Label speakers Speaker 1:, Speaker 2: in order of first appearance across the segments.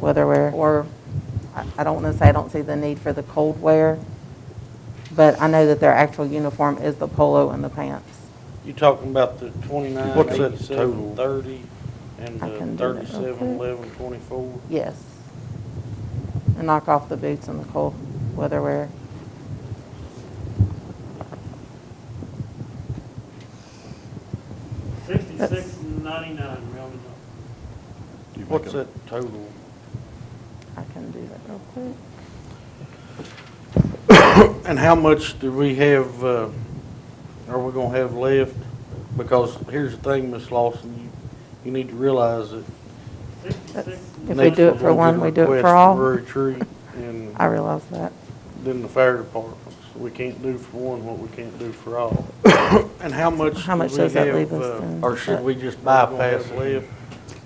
Speaker 1: whether we're, or, I- I don't want to say I don't see the need for the cold wear, but I know that their actual uniform is the polo and the pants.
Speaker 2: You talking about the twenty-nine,
Speaker 3: What's that
Speaker 2: eighty-seven,
Speaker 3: total?
Speaker 2: thirty, and
Speaker 1: I can do
Speaker 2: the
Speaker 1: that real
Speaker 2: thirty-seven,
Speaker 1: quick.
Speaker 2: eleven, twenty-four?
Speaker 1: Yes. And knock off the boots and the cold weather wear.
Speaker 4: Sixty-six ninety-nine, rounded up.
Speaker 3: You make
Speaker 2: What's
Speaker 3: a-
Speaker 2: that total?
Speaker 1: I can do that real quick.
Speaker 2: And how much do we have, uh, are we gonna have left? Because here's the thing, Miss Lawson, you, you need to realize that.
Speaker 4: Sixty-six.
Speaker 1: If we
Speaker 2: next
Speaker 1: do it
Speaker 2: we're
Speaker 1: for
Speaker 2: gonna
Speaker 1: one,
Speaker 2: get
Speaker 1: we do it for
Speaker 2: requests
Speaker 1: all.
Speaker 2: Retreat and
Speaker 1: I realize that.
Speaker 2: then the fire departments. We can't do for one what we can't do for all. And how much
Speaker 1: How
Speaker 2: do
Speaker 1: much
Speaker 2: we
Speaker 1: does that
Speaker 2: have,
Speaker 1: leave us
Speaker 2: uh,
Speaker 1: then?
Speaker 2: Or should we just bypass it?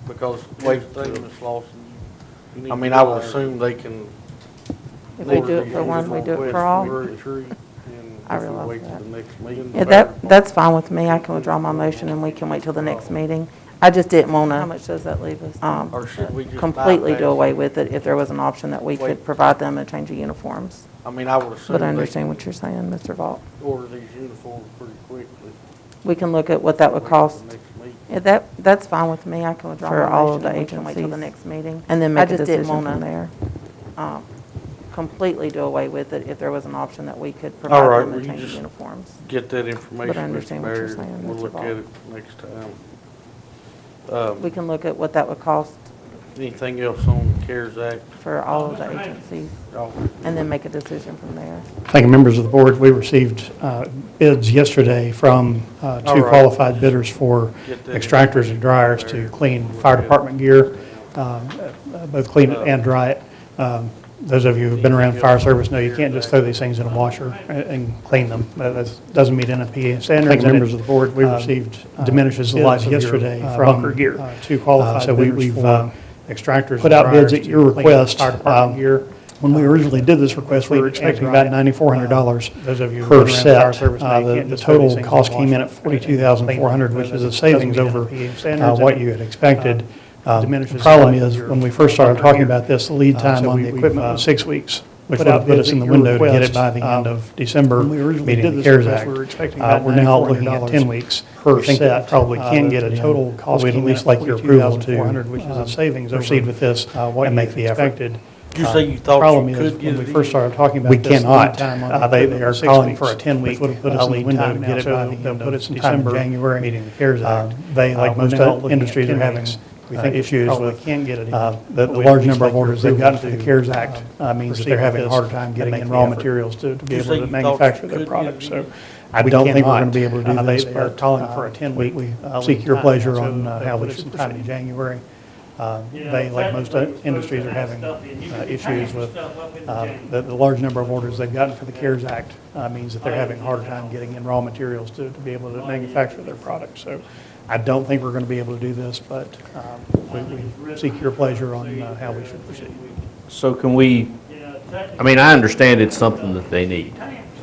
Speaker 2: Because here's the thing, Ms. Lawson, you need
Speaker 3: I
Speaker 2: to
Speaker 3: mean, I would
Speaker 2: realize-
Speaker 3: assume they can,
Speaker 1: If we
Speaker 2: Or
Speaker 1: do it
Speaker 2: the
Speaker 1: for one, we
Speaker 2: uniform
Speaker 1: do it
Speaker 2: west
Speaker 1: for all.
Speaker 2: Missouri tree, and
Speaker 1: I
Speaker 2: if we
Speaker 1: realize
Speaker 2: wait till
Speaker 1: that.
Speaker 2: the next meeting,
Speaker 1: Yeah, that, that's fine with me. I can withdraw my motion and we can wait till the next meeting. I just didn't want to. How much does that leave us? Um,
Speaker 2: Or should we just
Speaker 1: completely
Speaker 2: bypass
Speaker 1: do
Speaker 2: it?
Speaker 1: away with it if there was an option that we could
Speaker 2: Wait.
Speaker 1: provide them a change of uniforms.
Speaker 2: I mean, I would assume
Speaker 1: But I
Speaker 2: they
Speaker 1: understand
Speaker 2: can
Speaker 1: what you're saying, Mr. Vaught.
Speaker 2: order these uniforms pretty quickly.
Speaker 1: We can look at what that
Speaker 2: Wait
Speaker 1: would
Speaker 2: till the
Speaker 1: cost.
Speaker 2: next meeting.
Speaker 1: Yeah, that, that's fine with me. I can withdraw
Speaker 5: For
Speaker 1: my
Speaker 5: all
Speaker 1: motion
Speaker 5: of the
Speaker 1: and we can wait till the next
Speaker 5: agencies.
Speaker 1: meeting. And then make a decision from
Speaker 5: I
Speaker 1: there. Um, Completely do away with it if there was an option that we could
Speaker 2: All
Speaker 1: provide
Speaker 2: right,
Speaker 1: them
Speaker 2: well,
Speaker 1: a
Speaker 2: you
Speaker 1: change of
Speaker 2: just-
Speaker 1: uniforms.
Speaker 2: Get that information, Mr.
Speaker 1: understand what you're
Speaker 2: Mayor,
Speaker 1: saying,
Speaker 2: we'll
Speaker 1: Mr.
Speaker 2: look
Speaker 1: Ball.
Speaker 2: at it next time. Um,
Speaker 1: We can look at what that would cost
Speaker 2: Anything else on the CARES Act?
Speaker 1: for all of the agencies
Speaker 2: Oh,
Speaker 1: and then make a decision from there.
Speaker 6: Thank you, members of the board. We received uh, bids yesterday from uh,
Speaker 2: All
Speaker 6: two
Speaker 2: right.
Speaker 6: qualified bidders for
Speaker 2: Get that.
Speaker 6: extractors and dryers to clean fire department gear, um, uh, both clean it and dry it. Um, Those of you who've been around fire service know you can't just throw these things in a washer and- and clean them. That that's- doesn't meet NFPA standards.
Speaker 5: Thank you,
Speaker 6: and it,
Speaker 5: members of the board. We
Speaker 6: uh,
Speaker 5: received, uh,
Speaker 6: Diminishes the
Speaker 5: bids
Speaker 6: life of your
Speaker 5: yesterday
Speaker 6: uh,
Speaker 5: from,
Speaker 6: bunker gear.
Speaker 5: uh,
Speaker 6: Two qualified
Speaker 5: so we-
Speaker 6: bidders
Speaker 5: we've, uh,
Speaker 6: for extractors
Speaker 5: put
Speaker 6: and
Speaker 5: out bids
Speaker 6: dryers
Speaker 5: at
Speaker 6: to
Speaker 5: your
Speaker 6: clean
Speaker 5: request.
Speaker 6: fire
Speaker 5: Um,
Speaker 6: department gear. Uh,
Speaker 5: When we originally did this request, we were
Speaker 6: Completely
Speaker 5: expecting about
Speaker 6: anti-riot.
Speaker 5: ninety-four hundred dollars
Speaker 6: Uh, those of you who've
Speaker 5: per
Speaker 6: been around fire
Speaker 5: set.
Speaker 6: service know
Speaker 5: Uh,
Speaker 6: you
Speaker 5: The
Speaker 6: can't
Speaker 5: the
Speaker 6: just throw these
Speaker 5: total
Speaker 6: things in
Speaker 5: cost
Speaker 6: the
Speaker 5: came in
Speaker 6: wash
Speaker 5: at
Speaker 6: and
Speaker 5: forty-two thousand four hundred,
Speaker 6: clean
Speaker 5: which
Speaker 6: them.
Speaker 5: is a
Speaker 6: Doesn't
Speaker 5: savings
Speaker 6: meet
Speaker 5: over
Speaker 6: NFPA
Speaker 5: uh,
Speaker 6: standards,
Speaker 5: what
Speaker 6: and
Speaker 5: you had
Speaker 6: it,
Speaker 5: expected.
Speaker 6: uh,
Speaker 5: Um,
Speaker 6: diminishes
Speaker 5: The
Speaker 6: the
Speaker 5: problem
Speaker 6: life of
Speaker 5: is,
Speaker 6: your
Speaker 5: when we first started
Speaker 6: bunker
Speaker 5: talking
Speaker 6: gear.
Speaker 5: about this, the lead
Speaker 6: Uh,
Speaker 5: time
Speaker 6: so
Speaker 5: on
Speaker 6: we-
Speaker 5: the
Speaker 6: we've,
Speaker 5: equipment
Speaker 6: uh,
Speaker 5: was six weeks, which
Speaker 6: put
Speaker 5: would have
Speaker 6: out
Speaker 5: put
Speaker 6: bids
Speaker 5: us in
Speaker 6: at
Speaker 5: the
Speaker 6: your
Speaker 5: window to get it
Speaker 6: request.
Speaker 5: by the end
Speaker 6: Um,
Speaker 5: of December,
Speaker 6: when we originally
Speaker 5: meeting
Speaker 6: did
Speaker 5: the
Speaker 6: this
Speaker 5: CARES
Speaker 6: request,
Speaker 5: Act.
Speaker 6: we were expecting
Speaker 5: Uh,
Speaker 6: about
Speaker 5: We're now looking at
Speaker 6: $9,400
Speaker 5: ten weeks
Speaker 6: per
Speaker 5: per set.
Speaker 6: set.
Speaker 5: Probably
Speaker 6: Uh,
Speaker 5: can
Speaker 6: that
Speaker 5: get a
Speaker 6: in.
Speaker 5: total cost
Speaker 6: We'd
Speaker 5: came
Speaker 6: at
Speaker 5: in
Speaker 6: least
Speaker 5: at
Speaker 6: like your approval to
Speaker 5: 42,400, which is a
Speaker 6: um,
Speaker 5: savings over,
Speaker 6: proceed with this
Speaker 5: uh, what
Speaker 6: and
Speaker 5: you
Speaker 6: make the effort.
Speaker 5: expected.
Speaker 2: You say you thought you
Speaker 5: Problem is,
Speaker 2: could get
Speaker 5: When
Speaker 2: it
Speaker 5: we first
Speaker 2: in?
Speaker 5: started talking about
Speaker 6: We
Speaker 5: this. the lead
Speaker 6: cannot.
Speaker 5: time on
Speaker 6: Uh,
Speaker 5: the
Speaker 6: they-
Speaker 5: equipment
Speaker 6: they are
Speaker 5: was six
Speaker 6: calling
Speaker 5: weeks,
Speaker 6: for a 10-week,
Speaker 5: Which would have put
Speaker 6: uh,
Speaker 5: us in the
Speaker 6: lead
Speaker 5: window
Speaker 6: time
Speaker 5: to
Speaker 6: now,
Speaker 5: get it
Speaker 6: so
Speaker 5: by
Speaker 6: they'll
Speaker 5: the end
Speaker 6: put us
Speaker 5: of
Speaker 6: in time in
Speaker 5: December,
Speaker 6: January.
Speaker 5: meeting the CARES
Speaker 6: Uh,
Speaker 5: Act.
Speaker 6: they, like
Speaker 5: Uh, we're
Speaker 6: most
Speaker 5: now
Speaker 6: other
Speaker 5: looking at
Speaker 6: industries, are
Speaker 5: 10
Speaker 6: having,
Speaker 5: weeks. We
Speaker 6: uh,
Speaker 5: think we
Speaker 6: issues
Speaker 5: probably
Speaker 6: with,
Speaker 5: can get it in,
Speaker 6: uh, The
Speaker 5: but
Speaker 6: the
Speaker 5: we'd
Speaker 6: large
Speaker 5: just
Speaker 6: number of
Speaker 5: like your
Speaker 6: orders they've
Speaker 5: approval
Speaker 6: gotten through the
Speaker 5: to,
Speaker 6: CARES
Speaker 5: uh,
Speaker 6: Act uh, means that
Speaker 5: proceed
Speaker 6: they're
Speaker 5: with
Speaker 6: having a
Speaker 5: this
Speaker 6: harder time
Speaker 5: and
Speaker 6: getting
Speaker 5: make
Speaker 6: in
Speaker 5: the
Speaker 6: raw
Speaker 5: effort.
Speaker 6: materials to to be
Speaker 2: You
Speaker 6: able
Speaker 2: say
Speaker 6: to
Speaker 2: you thought you
Speaker 6: manufacture their
Speaker 2: could get
Speaker 6: products.
Speaker 2: it in.
Speaker 6: So I don't think we're
Speaker 5: cannot.
Speaker 6: going to be able to
Speaker 5: Uh,
Speaker 6: do
Speaker 5: they-
Speaker 6: this.
Speaker 5: They are
Speaker 6: but,
Speaker 5: calling
Speaker 6: uh,
Speaker 5: for a 10-week.
Speaker 6: uh, Seek your pleasure on uh, how we should time
Speaker 5: proceed.
Speaker 6: in January. Uh,
Speaker 4: Yeah,
Speaker 6: They, like
Speaker 4: technically,
Speaker 6: most
Speaker 4: we're
Speaker 6: uh,
Speaker 4: supposed
Speaker 6: industries,
Speaker 4: to
Speaker 6: are
Speaker 4: have
Speaker 6: having
Speaker 4: stuff in. You
Speaker 6: uh,
Speaker 4: can
Speaker 6: issues
Speaker 4: package
Speaker 6: with
Speaker 4: stuff up in
Speaker 6: uh,
Speaker 4: January.
Speaker 6: the the large number of orders they've gotten for the CARES Act uh, means that they're having a harder time getting in raw materials to to be able
Speaker 2: Oh,
Speaker 6: to manufacture their products. So I don't think we're going to be able to do this, but um, we- we seek your pleasure on uh, how we should proceed.
Speaker 7: So can we,
Speaker 4: Yeah, technically.
Speaker 7: I mean, I understand it's something that they need.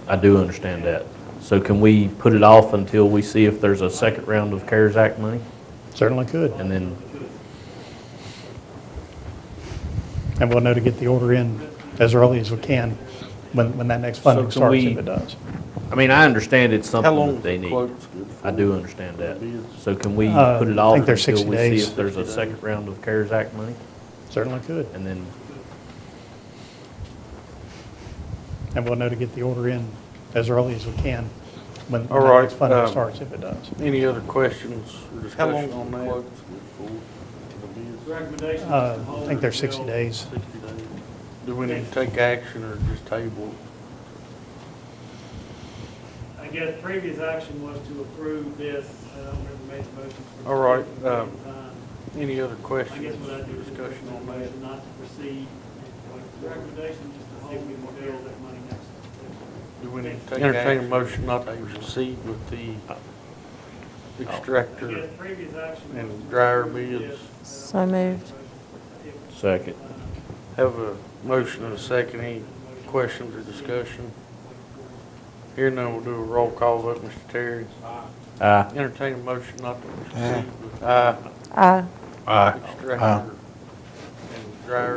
Speaker 7: I do understand that. So can we put it off until we see if there's a second round of CARES Act money?
Speaker 6: Certainly could.
Speaker 7: And then,
Speaker 6: And we'll know to get the order in as early as we can when, when that next funding
Speaker 7: can
Speaker 6: starts,
Speaker 7: we-
Speaker 6: if it does.
Speaker 7: I mean, I understand it's
Speaker 2: How
Speaker 7: something
Speaker 2: long
Speaker 7: that they
Speaker 2: is the
Speaker 7: need.
Speaker 2: quotes good for?
Speaker 7: I do understand that.
Speaker 2: Bids.
Speaker 7: So can we
Speaker 6: Uh,
Speaker 7: put it
Speaker 6: I
Speaker 7: off
Speaker 6: think they're
Speaker 7: until
Speaker 6: 60
Speaker 7: we see
Speaker 6: days.
Speaker 7: if there's a second round of CARES Act money?
Speaker 6: Certainly could.
Speaker 7: And then,
Speaker 6: And we'll know to get the order in as early as we can when
Speaker 2: All
Speaker 6: when that
Speaker 2: right,
Speaker 6: next funding
Speaker 2: um,
Speaker 6: starts, if it does.
Speaker 2: Any other questions or
Speaker 3: How long
Speaker 2: discussion on
Speaker 3: the
Speaker 2: that?
Speaker 3: quotes
Speaker 4: Recommendation is to
Speaker 6: Uh, I
Speaker 4: hold
Speaker 6: think they're 60
Speaker 4: until-
Speaker 6: days.
Speaker 2: Do we need to take action or just table?
Speaker 4: I guess previous action was to approve this, uh, I don't remember who made the motion. for-
Speaker 2: All right, um,
Speaker 4: I
Speaker 2: it? Any other
Speaker 4: guess
Speaker 2: questions
Speaker 4: what I
Speaker 2: or
Speaker 4: do is
Speaker 2: discussion on
Speaker 4: recommend
Speaker 2: that?
Speaker 4: a motion not to proceed, with the recommendation is to hold until that money next.
Speaker 2: Do we need to take Uh,
Speaker 3: Take
Speaker 2: Entertain a
Speaker 3: action.
Speaker 2: motion not to proceed with the
Speaker 4: I
Speaker 2: extractor.
Speaker 4: guess previous action was
Speaker 2: And
Speaker 4: to
Speaker 2: dryer
Speaker 4: approve
Speaker 2: bids.
Speaker 4: this, uh,
Speaker 1: So moved.
Speaker 7: second.
Speaker 2: Have a motion and a second. Any questions or discussion? Here now we'll do a roll call vote, Mr. Terry.
Speaker 7: Aye.
Speaker 2: Entertain a motion not to proceed with the
Speaker 1: Aye.
Speaker 2: extractor and dryer